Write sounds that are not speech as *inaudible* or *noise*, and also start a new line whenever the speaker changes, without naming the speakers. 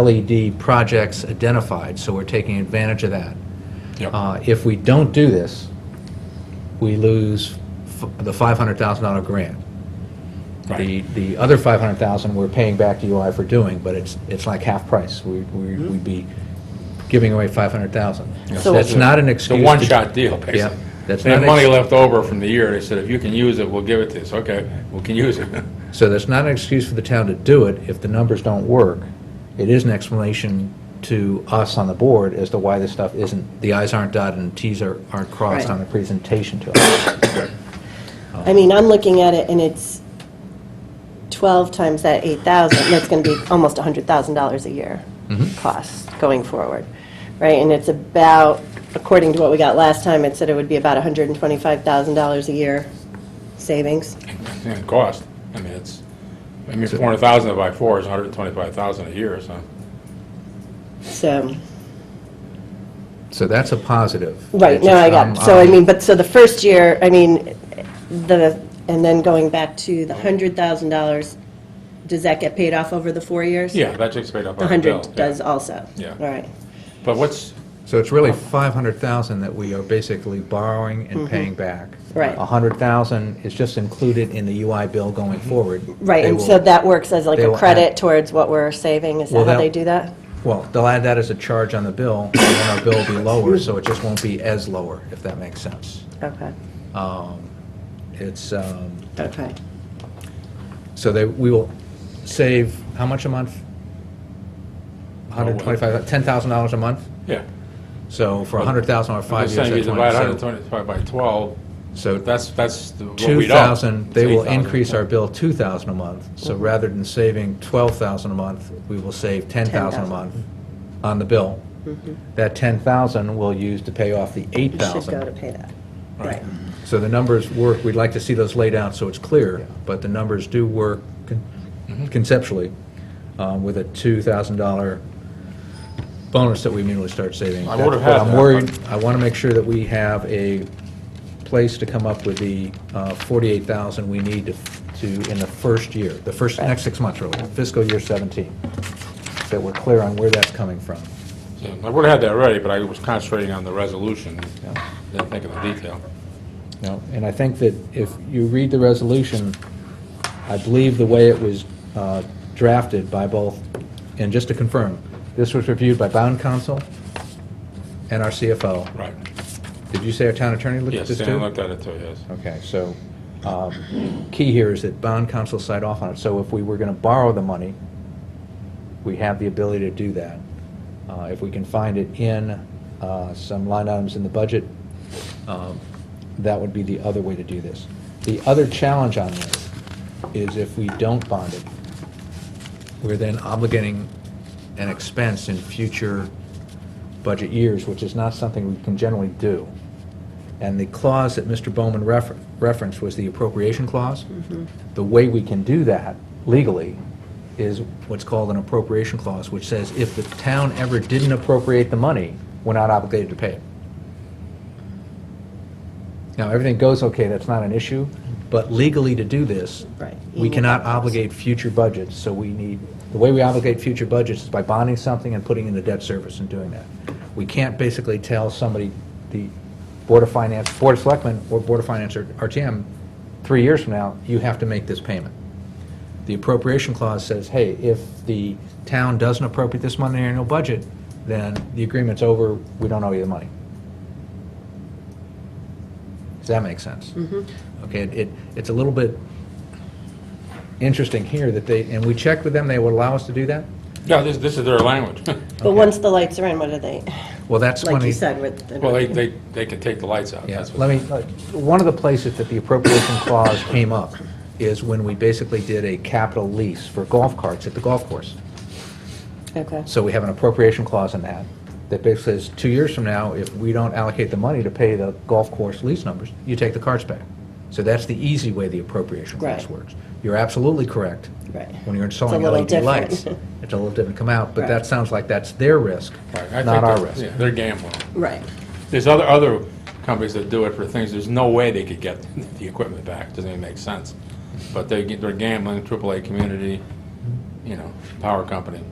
LED E projects identified, so we're taking advantage of that.
Yep.
Uh, If we don't do this, we lose f- the $500,000 grant. The,
Right.
the other 500,000 we're paying back to UI for doing, but it's, it's like half price. We, we- we'd be giving away 500,000.
So-
That's not an excuse.
It's a
to-
one-shot deal, basically.
Yeah, that's
They
not
had
an
money
ex-
left over from the year, they said, if you can use it, we'll give it to you. So, okay, we can use it. *laughs*
So that's not an excuse for the town to do it if the numbers don't work. It is an explanation to us on the board as to why this stuff isn't, the i's aren't dotted and t's are- aren't crossed
Right.
on the presentation to us.
I mean, I'm looking at it, and it's 12 times that 8,000, that's going to be almost $100,000 a year cost going forward, right? And it's about, according to what we got last time, it said it would be about $125,000 a year savings.
And cost, I mean, it's, I mean, 400,000 by four is 125,000 a year, so.
So,
So that's a positive.
right,
It's
no,
just,
I
um,
got, so I
um,
mean, but, so the first year, I mean, the, and then going back to the $100,000, does that get paid off over the four years?
Yeah, that takes paid off
The
on the bill.
100 does also?
Yeah.
All right.
But what's,
So it's really 500,000 that we are basically borrowing and paying back.
Mm-hmm. Right.
100,000 is just included in the UI bill going forward.
Mm-hmm. Right,
They
and
will-
so that works as like
they
a
will add-
credit towards what we're saving, is
Well,
that how
that-
they do that?
Well, they'll add that as a charge on the bill, and then our bill will be lower, so it just won't be as lower, if that makes sense.
Okay,
Um, It's, um,
okay.
so they, we will save, how much a month?
Oh, well.
125, $10,000 a month?
yeah.
So for 100,000 or
I'm
five
just
years,
saying, you
that's 20.
divide
So-
125 by 12,
So
that's, that's the- what we don't.
2,000, they
It's
will
8,000.
increase our bill 2,000 a month. So rather than saving 12,000 a month, we will save 10,000 a
10,000.
month on the bill. That 10,000 we'll use to pay off the
You should go to
8,000.
pay that.
Right.
So the numbers work, we'd like to see those laid out so it's clear, but the numbers do work con-
Mm-hmm.
conceptually um, with a $2,000 bonus that we immediately start saving.
I would've
That's what
had
I'm
that,
worried, I want to make sure that we have a place to come up with the uh, 48,000 we need to, to- in the first year, the first, next six months really, fiscal year 17, that we're clear on where that's coming from.
Yeah, I would have had that ready, but I was concentrating on the resolution, didn't think of the detail.
No, and I think that if you read the resolution, I believe the way it was uh, drafted by both, and just to confirm, this was reviewed by bond counsel and our CFO.
Right. Yes,
Did you say our town attorney looked at this too?
Stan looked at it too, yes.
Okay, so, um, key here is that bond counsel signed off on it, so if we were going to borrow the money, we have the ability to do that. Uh, If we can find it in uh, some line items in the budget, um, that would be the other way to do this. The other challenge on this is if we don't bond it, we're then obligating an expense in future budget years, which is not something we can generally do. And the clause that Mr. Bowman refer- referenced was the appropriation clause. The way we can do that legally is what's called an appropriation clause, which says if the town ever didn't appropriate the money, we're not obligated to pay it. Now, everything goes okay, that's not an issue, but legally to do this,
Right.
we cannot obligate future budgets, so we need, the way we obligate future budgets is by bonding something and putting in the debt service and doing that. We can't basically tell somebody, the Board of Finance, Board of Selectmen, or Board of Finance or RTM, three years from now, you have to make this payment. The appropriation clause says, hey, if the town doesn't appropriate this money in the annual budget, then the agreement's over, we don't owe you the money. Does that make sense?
Mm-hmm.
Okay, it- it, it's a little bit interesting here that they, and we checked with them, they would allow us to do that?
Yeah, this, this is
*laughs*
their language.
But once the lights are in, what are they,
Well, that's when
like you
he,
said with the...
Well, they, they, they can take the lights out.
yeah,
That's what-
let me, uh, one of the places that the appropriation clause came up is when we basically did a capital lease for golf carts at the golf course.
Okay,
So we have an appropriation clause in that, that basically says, two years from now, if we don't allocate the money to pay the golf course lease numbers, you take the carts back. So that's the easy way the appropriation clause
Right.
works. You're absolutely correct.
Right.
When you're installing
little
LED
different.
lights, it's a little different come out, but that
Right.
sounds like that's their risk,
Right, I think
not our
that-
risk.
yeah, They're gambling.
right,
There's other, other companies that do it for things, there's no way they could get *laughs* the equipment back, doesn't even make sense. But they, get- they're gambling, AAA community, you know, power company.